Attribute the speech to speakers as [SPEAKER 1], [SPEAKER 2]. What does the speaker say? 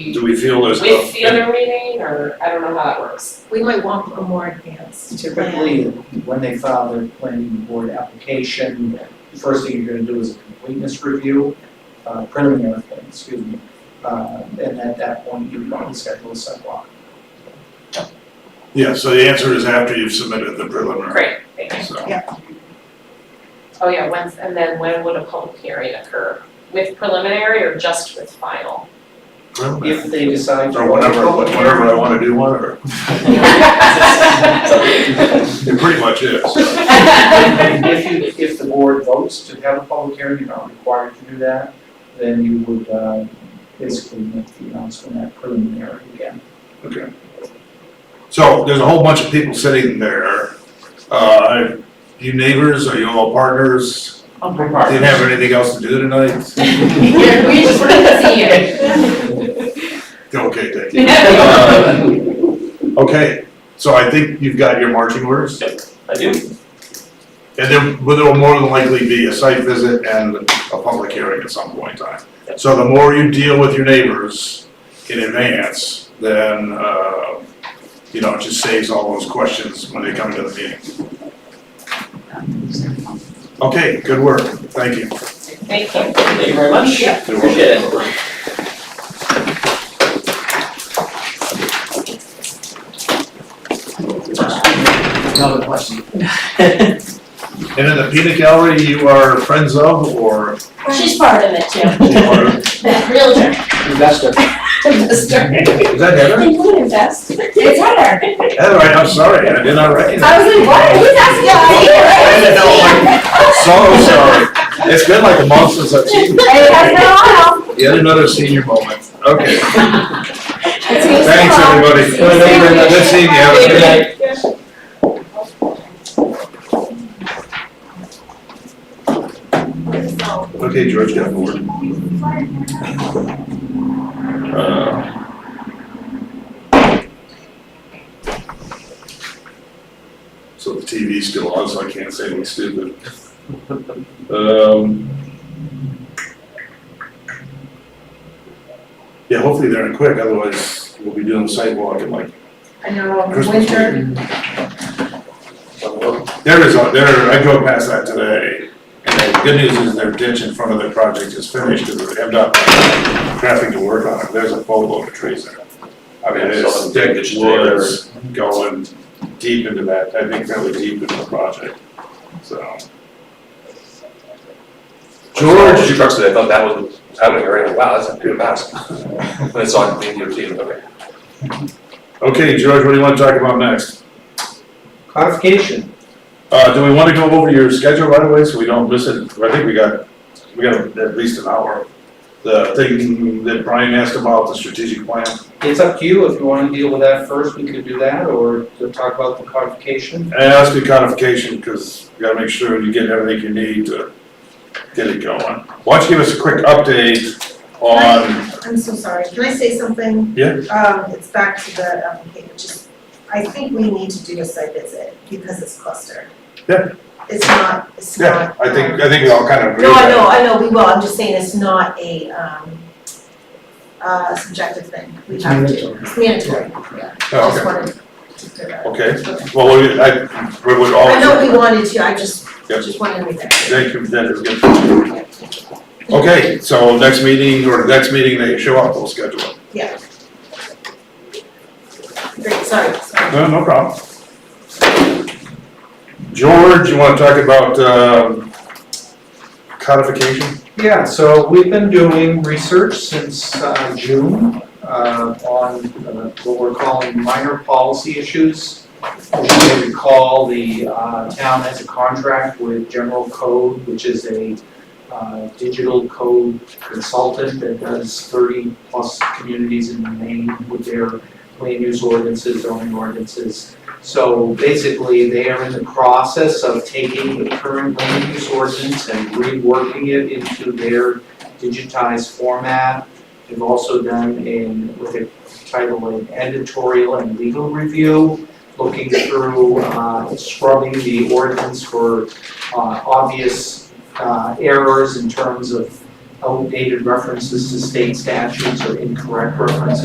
[SPEAKER 1] Do we feel there's?
[SPEAKER 2] with the other meeting, or I don't know how that works.
[SPEAKER 3] We might want a more advanced plan.
[SPEAKER 4] Typically, when they file their planning board application, the first thing you're gonna do is a completeness review, uh, preliminary thing, excuse me. Uh, and at that point, you probably schedule a sidewalk.
[SPEAKER 1] Yeah, so the answer is after you've submitted the preliminary,
[SPEAKER 2] Great, thank you.
[SPEAKER 1] so.
[SPEAKER 2] Oh, yeah, when's, and then when would a public hearing occur? With preliminary or just with final?
[SPEAKER 1] preliminary.
[SPEAKER 4] If they decide. to
[SPEAKER 1] Or whatever,
[SPEAKER 4] go to
[SPEAKER 1] whatever I wanna do, whatever. It pretty much is.
[SPEAKER 4] And if you, if the board votes to have a public hearing, you're not required to do that, then you would, uh, basically make the announcement at preliminary again.
[SPEAKER 1] So there's a whole bunch of people sitting there. Uh, you neighbors, are you all partners? Didn't have anything else to do tonight?
[SPEAKER 2] Yeah, we just wanted to see you.
[SPEAKER 1] Okay, thank you. Okay, so I think you've got your marching orders?
[SPEAKER 5] I do.
[SPEAKER 1] And there, but there will more than likely be a site visit and a public hearing at some point in time. So the more you deal with your neighbors in advance, then, uh, you know, it just saves all those questions when they come to the meeting. Okay, good work, thank you.
[SPEAKER 2] Thank you.
[SPEAKER 5] Thank you very much.
[SPEAKER 2] Yeah.
[SPEAKER 5] Appreciate it.
[SPEAKER 4] Another question.
[SPEAKER 1] And in the peanut gallery, you are friends of or?
[SPEAKER 6] She's part of it too,
[SPEAKER 1] Is
[SPEAKER 6] the realtor,
[SPEAKER 4] Investor.
[SPEAKER 6] investor.
[SPEAKER 1] that Heather?
[SPEAKER 6] They would invest. It's Heather.
[SPEAKER 1] Heather, I- I'm sorry, I did not recognize.
[SPEAKER 6] I was like, what? Who's asking
[SPEAKER 1] So sorry, it's been like a month since I've seen you.
[SPEAKER 6] It has been a while.
[SPEAKER 1] Yet another senior moment, okay.
[SPEAKER 6] It's been a
[SPEAKER 1] Thanks,
[SPEAKER 6] while.
[SPEAKER 1] everybody.
[SPEAKER 6] Well, thank you very much.
[SPEAKER 1] Good seeing you. Have a good night. Okay, George got bored. Uh, So the TV's still on, so I can't say anything stupid. Um, Yeah, hopefully they're in quick, otherwise we'll be doing sidewalk in like
[SPEAKER 3] I know,
[SPEAKER 1] Christmas
[SPEAKER 3] winter,
[SPEAKER 1] There is, a- there, I drove past that today, and the good news is their ditch in front of their project is finished, and they have not traffic to work on it, there's a full load of trees in it. I mean, it's thick woods going deep into that, I think fairly deep into the project, so.
[SPEAKER 5] George,
[SPEAKER 1] George,
[SPEAKER 5] you trucks today, I thought that was happening already, wow, that's pretty fast. And it's on clean DOT, okay.
[SPEAKER 1] okay, George, what do you wanna talk about next?
[SPEAKER 4] Clarification,
[SPEAKER 1] Uh, do we wanna go over your schedule right away, so we don't miss it, I think we got, we got at least an hour. The thing that Brian asked about, the strategic plan.
[SPEAKER 4] It's up to you, if you wanna deal with that first, we could do that, or to talk about the codification.
[SPEAKER 1] And it has to be codification, because you gotta make sure you get everything you need to get it going. Why don't you give us a quick update on,
[SPEAKER 7] I'm so sorry, can I say something?
[SPEAKER 1] Yeah.
[SPEAKER 7] Um, it's back to the application, just, I think we need to do a site visit because it's clustered.
[SPEAKER 1] Yeah.
[SPEAKER 7] It's not, it's
[SPEAKER 1] yeah,
[SPEAKER 7] not.
[SPEAKER 1] I
[SPEAKER 7] um,
[SPEAKER 1] think, I think we all kind of agree
[SPEAKER 7] No,
[SPEAKER 1] with
[SPEAKER 7] I know,
[SPEAKER 1] that.
[SPEAKER 7] I know, we will, I'm just saying it's not a, um, uh, subjective thing, we have to, it's mandatory, yeah, I just
[SPEAKER 1] Oh,
[SPEAKER 7] wanted to clear that. up.
[SPEAKER 1] Okay, okay, well, we, I, we would all.
[SPEAKER 7] I know we wanted to, I just,
[SPEAKER 1] Yeah.
[SPEAKER 7] just wanted to make that clear.
[SPEAKER 1] Thank you, that is good. Okay, so next meeting, or next meeting, they show up, we'll schedule it.
[SPEAKER 7] Great, sorry, sorry.
[SPEAKER 1] No, no problem. George, you wanna talk about, um, codification?
[SPEAKER 4] Yeah, so we've been doing research since uh, June uh, on uh, what we're calling minor policy issues. As you may recall, the uh, town has a contract with General Code, which is a uh, digital code consultant that does 30-plus communities in Maine with their land use ordinances, zoning ordinances. So basically, they are in the process of taking the current land use ordinance and reworking it into their digitized format. They've also done in, with a title, an editorial and legal review, looking through, uh, scrubbing the ordinance for, uh, obvious, uh, errors in terms of outdated references to state statutes or incorrect references